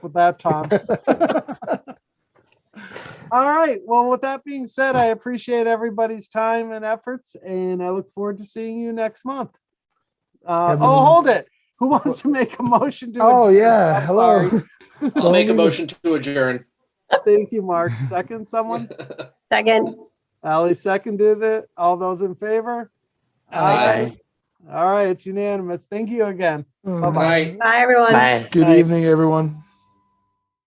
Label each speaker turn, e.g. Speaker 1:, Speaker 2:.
Speaker 1: with that, Tom. All right. Well, with that being said, I appreciate everybody's time and efforts, and I look forward to seeing you next month. Uh,
Speaker 2: Have a-
Speaker 1: oh, hold it. Who wants to make a motion to?
Speaker 2: Oh,
Speaker 1: adjourn?
Speaker 2: yeah.
Speaker 1: I'm
Speaker 2: Hello.
Speaker 1: sorry.
Speaker 3: I'll make a
Speaker 2: Don't-
Speaker 3: motion to adjourn.
Speaker 1: Thank you, Mark. Second, someone?
Speaker 4: Second.
Speaker 1: Ally seconded it. All those in favor?
Speaker 3: Aye.
Speaker 1: All right. It's unanimous. Thank you again.
Speaker 3: Good night.
Speaker 1: Oh,
Speaker 4: Bye, everyone.
Speaker 5: Bye.
Speaker 2: Good
Speaker 1: Aye.
Speaker 2: evening, everyone.